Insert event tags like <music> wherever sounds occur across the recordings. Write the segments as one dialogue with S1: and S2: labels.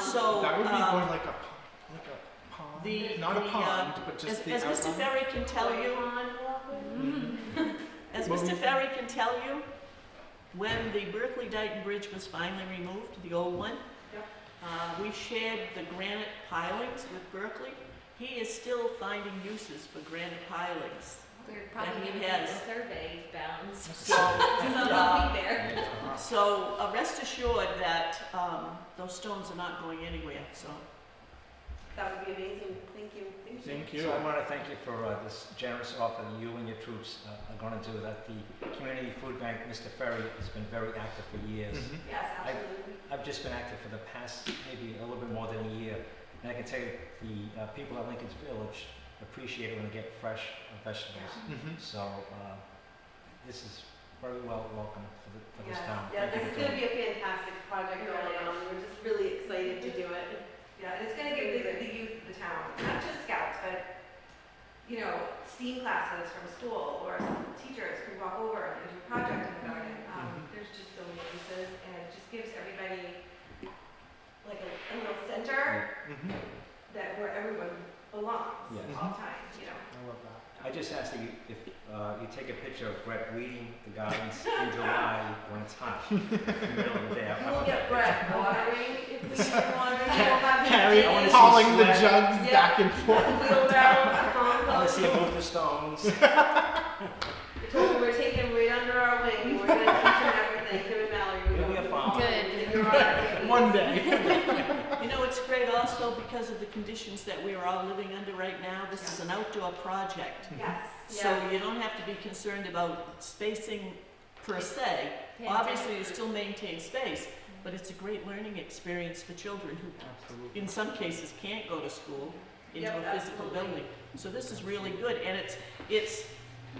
S1: So,
S2: That would be
S1: um,
S2: more like a, p- like a
S1: the-
S2: pond, not a
S1: the, uh,
S2: pond, but
S1: As,
S2: just the
S1: as Mr.
S2: outline.
S1: Ferry can tell you, as
S2: Well,
S1: Mr.
S2: we-
S1: Ferry can tell you, when the Berkeley Dyton Bridge was finally removed, the old one, uh, we shared the granite pilings with Berkeley. He is still finding uses for granite pilings.
S3: We're
S1: Then
S3: probably
S1: he
S3: gonna get
S1: has-
S3: survey
S2: <laughs>
S3: <laughs> bounds.
S1: So, uh,
S3: We'll be there.
S1: so uh, rest assured that um, those stones are not going anywhere, so.
S4: That would be amazing, thank you.
S2: Thank you.
S5: So I want to thank you for uh, this generous offer that you and your troops uh, are going to do. That the community food bank, Mr. Ferry, has been very active for years.
S2: Mhm.
S4: Yes,
S5: I-
S4: absolutely.
S5: I've just been active for the past maybe a little bit more than a year, and I can tell you the uh, people at Lincoln's Village appreciate it when they get fresh uh, vegetables.
S2: Mhm.
S5: So uh, this is very well welcome for, the, for this
S4: Yeah.
S5: town.
S4: Yeah,
S5: Thank
S4: this
S5: you
S4: is
S5: for
S4: gonna
S5: doing
S4: be a fantastic project
S3: It
S4: early
S3: really
S4: on, we're just really excited to do it. Yeah, and it's gonna give the, the youth of the town, not just scouts, but, you know, STEAM classes from school, or some teachers can walk over and do a project in the garden.
S5: Mm-hmm.
S4: Um, there's just so many uses, and it just gives everybody like a, a little center
S2: Mhm.
S4: that where everyone belongs
S5: Yeah. Mm-hmm.
S4: all the time, you know?
S2: I love that.
S5: I just ask that you, if uh, you take a picture of Brett weeding the gardens in July when it's
S2: <laughs>
S5: hot, in the middle of the day. I-
S4: We'll get Brett watering, if we get
S5: <laughs>
S4: watering,
S1: <laughs>
S4: we'll have.
S2: Carrie
S5: I wanna see
S2: hauling the
S5: sweat.
S4: Yeah.
S2: jugs back and forth.
S5: I want to see a move the <laughs> stones.
S4: We're taking right under our wing, we're gonna teach them everything, him and Mallory.
S5: You'll be a farmer.
S3: Good.
S4: You're
S5: <laughs>
S4: right.
S1: <laughs>
S2: One day.
S1: You know, it's great also because of the conditions that we are all living under right now. This is an outdoor project.
S4: Yes.
S1: So you don't have to be concerned about spacing per se. Obviously, you still maintain space, but it's a great learning experience for children who,
S2: Absolutely.
S1: in some cases, can't go to school into
S4: Yep,
S1: a physical
S4: absolutely.
S1: building. So this is really good, and it's, it's,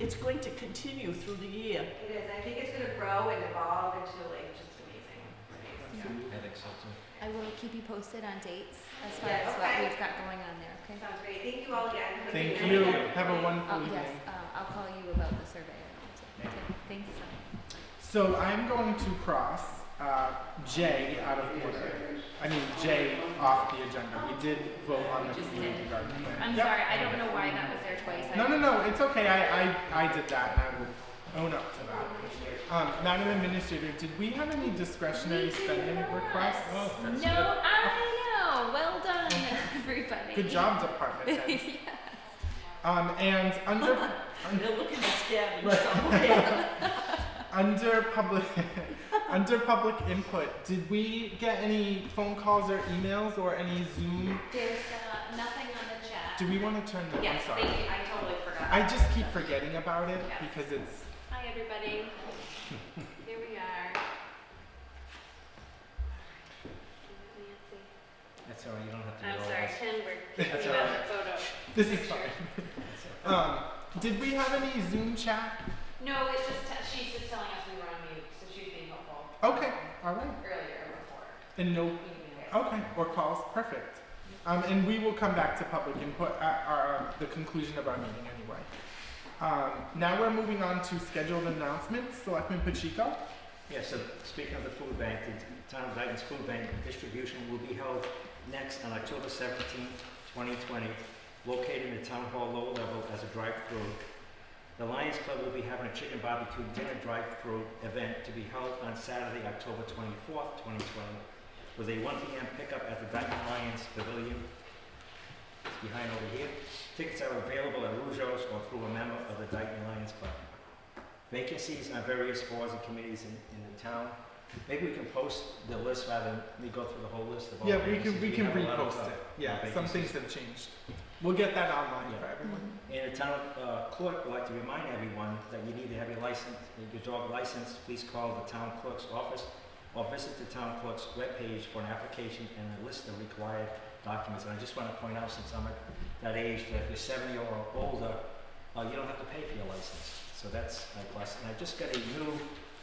S1: it's going to continue through the year.
S4: It is, I think it's gonna grow and evolve into like just amazing. space.
S5: I think so too.
S3: I will keep you posted on dates as far
S4: Yeah,
S3: as what
S4: okay.
S3: we've got going on there, okay?
S4: Sounds great, thank you all again. Have a
S2: Thank
S4: good
S2: you.
S4: night.
S2: Have a wonderful
S3: Oh, yes,
S2: evening.
S3: uh, I'll call you about the survey. and all that. Okay, Thanks.
S2: So I'm going to cross uh, J out of order. I mean J off the agenda. We did vote on the
S3: Just
S2: community
S3: did.
S2: garden plan.
S3: I'm
S2: Yep.
S3: sorry, I don't know why that was there twice.
S2: No, no, no. It's okay. I, I, I did that, and I will own up to that. Um, Madam Administrator, did we have any discretionary spending requests?
S3: No, I know. Well done, <laughs> everybody.
S2: Oh, Good
S3: <laughs>
S2: job, Department Heads. Um, and under
S1: They're looking to stab you, so, okay.
S2: under public <laughs> under public input, did we get any phone calls or emails or any Zoom?
S3: There's uh, nothing on the chat.
S2: Do we want to turn that?
S3: Yes,
S2: I'm
S3: thank
S2: sorry.
S3: you. I totally forgot.
S2: I just keep forgetting about it
S3: Yes.
S2: because it's
S3: Hi, everybody. Here we are.
S5: That's all right, you don't have to
S6: I'm
S5: yell
S6: sorry,
S5: at us.
S6: Ken, we're
S2: <laughs> That's
S6: kicking
S2: all
S6: out the photo.
S2: this is fine. Um, did we have any Zoom chat?
S6: No, it's just, t- she's just telling us we were on mute, so she's being helpful. um,
S2: Okay, all right.
S6: Earlier, before.
S2: And no Okay, or calls, perfect. Um, and we will come back to public input at our, the conclusion of our meeting anyway. Um, now we're moving on to scheduled announcements. Selectman Pacheco?
S5: Yeah, so speaking of the food bank, the town of Dayton's food bank distribution will be held next on October seventeenth, twenty twenty, located in the town hall lower level as a drive-through. The Lions Club will be having a chicken barbecue dinner drive-through event to be held on Saturday, October twenty-fourth, twenty twenty, with a one P M pickup at the Dayton Lions Pavilion. It's behind over here. Tickets are available at Rougeau's or through a member of the Dayton Lions Club vacancies on various boards and committees in, in the town. Maybe we can post the list rather than we go through the whole list of all
S2: Yeah, we
S5: vacancies.
S2: can, we can
S5: have a lot of,
S2: repost
S5: uh,
S2: it. Yeah, some
S5: vacancies.
S2: things have changed. We'll get that online
S5: Yeah.
S2: for everyone.
S5: And the town uh, clerk would like to remind everyone that you need to have your license, your dog license. Please call the town clerk's office or visit the town clerk's webpage for an application and a list of required documents. And I just want to point out, since I'm at that age, that if you're 70 or older, uh, you don't have to pay for your license. So that's my plus. And I just got a new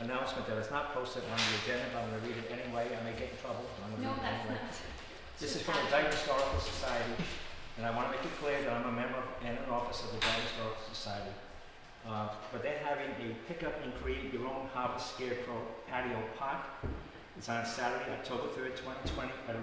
S5: announcement that is not posted on the agenda, but I'm going to read it anyway. I may get in trouble. but I'm going to
S3: No,
S5: read it
S3: that's
S5: anyway.
S3: not.
S5: This is from the Dyke Historical Society, and I want to make it clear that I'm a member and an officer of the Dyke Historical Society. Uh, but they're having a pickup and create your own harvest scarecrow patio pot. It's on Saturday, October third, twenty twenty, at a